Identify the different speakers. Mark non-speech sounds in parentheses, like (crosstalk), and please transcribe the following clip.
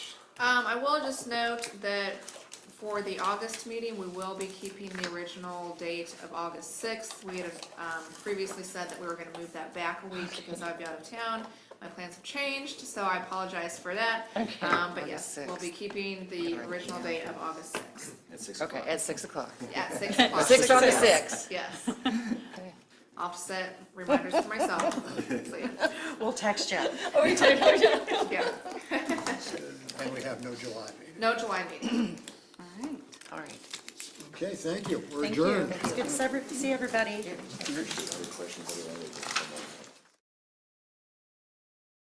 Speaker 1: Um, I will just note that for the August meeting, we will be keeping the original date of August sixth. We had, um, previously said that we were gonna move that back a week because I'd be out of town. My plans have changed, so I apologize for that.
Speaker 2: Okay,
Speaker 1: Um, but
Speaker 2: August
Speaker 1: yes, we'll
Speaker 2: 6th.
Speaker 1: be keeping the original date of August sixth
Speaker 3: At six
Speaker 2: Okay,
Speaker 3: o'clock.
Speaker 2: at 6 o'clock.
Speaker 1: at six o'clock.
Speaker 2: 6 on the
Speaker 1: Yes.
Speaker 2: 6.
Speaker 1: Yes, (laughs)
Speaker 2: Okay.
Speaker 1: I'll set reminders to myself. (laughs) So, yeah,
Speaker 4: We'll text you.
Speaker 1: yeah.
Speaker 5: And we have no July meeting.
Speaker 1: No July meeting.
Speaker 4: All right.
Speaker 2: All right.
Speaker 5: Okay, thank you. We're
Speaker 4: Thank you.
Speaker 5: adjourned.
Speaker 4: It's good to see everybody.
Speaker 3: Other questions, other languages, come on.